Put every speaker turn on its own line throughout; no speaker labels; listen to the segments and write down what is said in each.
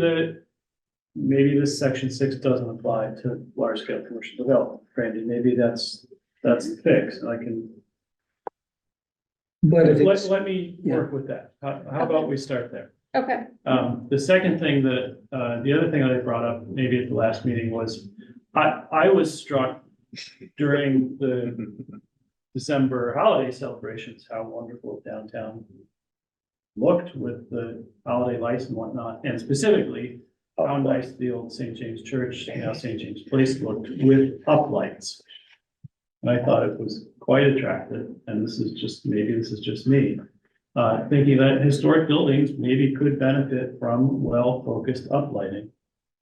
that maybe this section six doesn't apply to large scale commercial development, Brandy, maybe that's, that's the fix, I can,
But if
let,
it's,
let me work with that, how, how about we start there?
Okay,
Um, the second thing that, uh, the other thing that I brought up maybe at the last meeting was, I, I was struck during the December holiday celebrations, how wonderful downtown looked with the holiday lights and whatnot, and specifically how nice the old St. James Church, now St. James Place looked with uplights. And I thought it was quite attractive, and this is just, maybe this is just me, uh, thinking that historic buildings maybe could benefit from well-focused uplighting.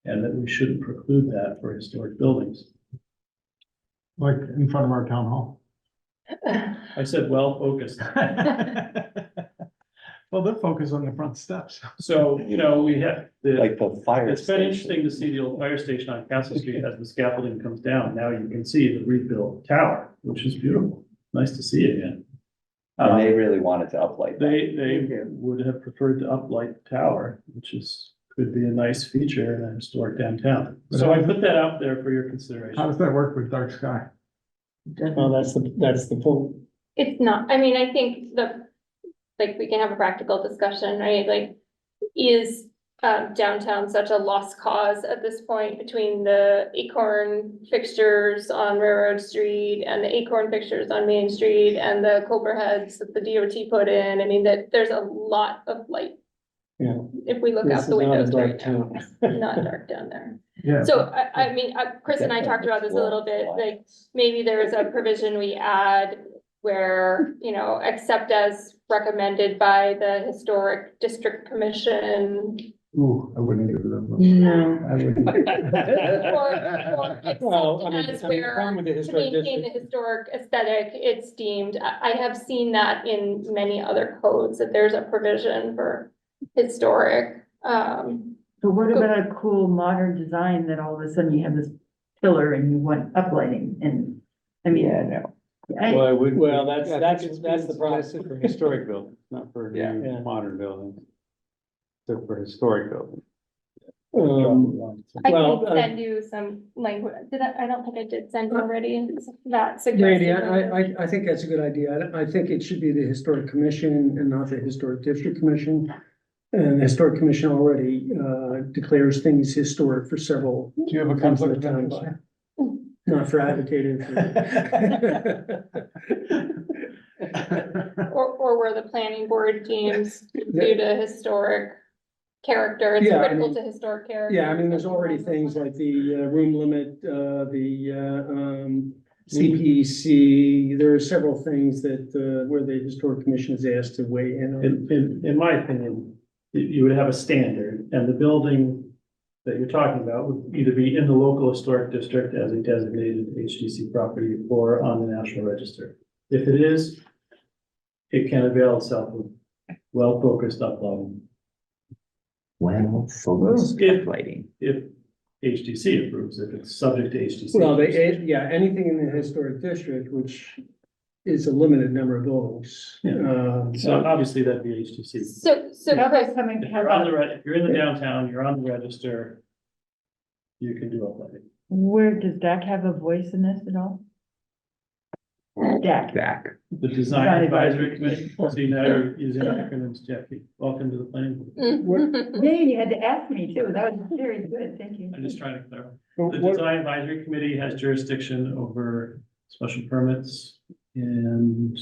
And that we shouldn't preclude that for historic buildings.
Like in front of our town hall.
I said well-focused.
Well, they're focused on the front steps.
So, you know, we have, the,
like the fire.
it's been
station.
interesting to see the old fire station on Castle Street as the scaffolding comes down. Now you can see the rebuilt tower, which is beautiful. Nice to see again.
And
Uh,
they really wanted to uplight that.
They, they would have preferred to uplight the tower, which is, could be a nice feature in a historic downtown. So I put that out there for your
How
consideration.
does that work with dark sky?
well, that's the, that's the point.
it's not, I mean, I think the, like, we can have a practical discussion, right? Like, is uh, downtown such a lost cause at this point between the acorn fixtures on Railroad Street and the acorn fixtures on Main Street and the Cobra heads that the DOT put in? I mean, that there's a lot of light.
Yeah.
If we look
This
out
is
the
not a
windows
dark
right now,
town.
not dark down there.
Yeah.
So I, I mean, I- Chris and I talked about this a little bit, like, maybe there is a provision we add where, you know, except as recommended by the Historic District Commission,
Ooh, I wouldn't give them.
No.
I wouldn't.
or, or
Well, I mean,
except
I
as
mean, the problem with
where
the
to
historic
maintain the
district,
historic aesthetic, it's deemed, I, I have seen that in many other codes, that there's a provision for historic, um,
But what about a cool modern design that all of a sudden you have this pillar and you want uplighting and, I mean,
Yeah, no,
I,
well, that's, that's, that's the problem.
For historic buildings, not for
Yeah.
Yeah.
new modern buildings. So for historic buildings.
Um,
I
Well,
can
uh,
send you some language, did I, I don't think I did send you already
Randy,
that suggested.
I, I, I- I think that's a good idea. I, I think it should be the historic commission and not the historic district commission. And the historic commission already, uh, declares things historic for several,
Do you have a conflict of interest?
not for agitated. for-
Or, or where the planning board deems due to historic character, it's
Yeah, I
critical
mean-
to historic character.
Yeah, I mean, there's already things like the uh, room limit, uh, the, uh, um, CPC. There are several things that, uh, where the historic commission is asked to weigh in on.
In, in, in my opinion, you, you would have a standard and the building that you're talking about would either be in the local historic district as a designated HDC property or on the national register. If it is, it can avail itself of well-focused uploading
well, focused
If-
uplighting.
if HDC approves, if it's subject to HDC.
Well, they, eh, yeah, anything in the historic district, which is a limited number of buildings.
Yeah.
uh,
So obviously that'd be HDC.
So, so
how
Chris,
about coming,
If
how
you're on
about,
the, re- if you're in the downtown, you're on the register, you can do uploading.
where, does DAC have a voice in this at all? DAC,
Back.
The Design Advisory Committee, see now you're using acronyms, Jackie, welcome to the planning board.
Mm.
yeah, you had to ask me too, that was very good, thank you.
I'm just trying to clarify.
But
The
what-
Design Advisory Committee has jurisdiction over special permits and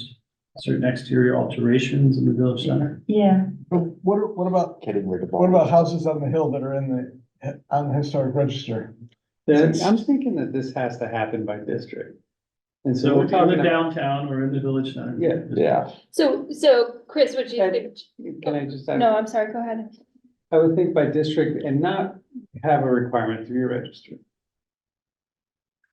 certain exterior alterations in the village center.
Yeah,
What, what about,
Kidding, we're the.
what about houses on the hill that are in the, on the historic register?
Then I'm thinking that this has to happen by district. And so
So
we're
if you're in
talking,
the downtown or in the village center.
Yeah.
Yeah,
so, so Chris, would you, think-
can I just,
no,
I
I'm sorry, go ahead.
would think by district and not have a requirement to be registered.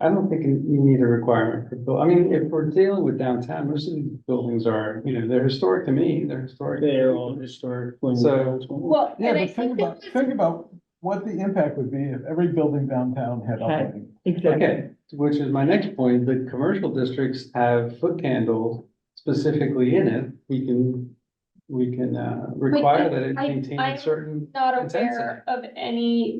I don't think you need a requirement for, buil- I mean, if we're dealing with downtown, most of these buildings are, you know, they're historic to me, they're historic.
They're all historic.
So-
Well,
Yeah,
and I
but think
think
about,
that was,
think about what the impact would be if every building downtown had uplighting.
exactly.
Okay, which is my next point, the commercial districts have foot candles specifically in it, we can we can, uh, require that it
I-
maintain
I'm
a certain
Not
Intensity.
aware of any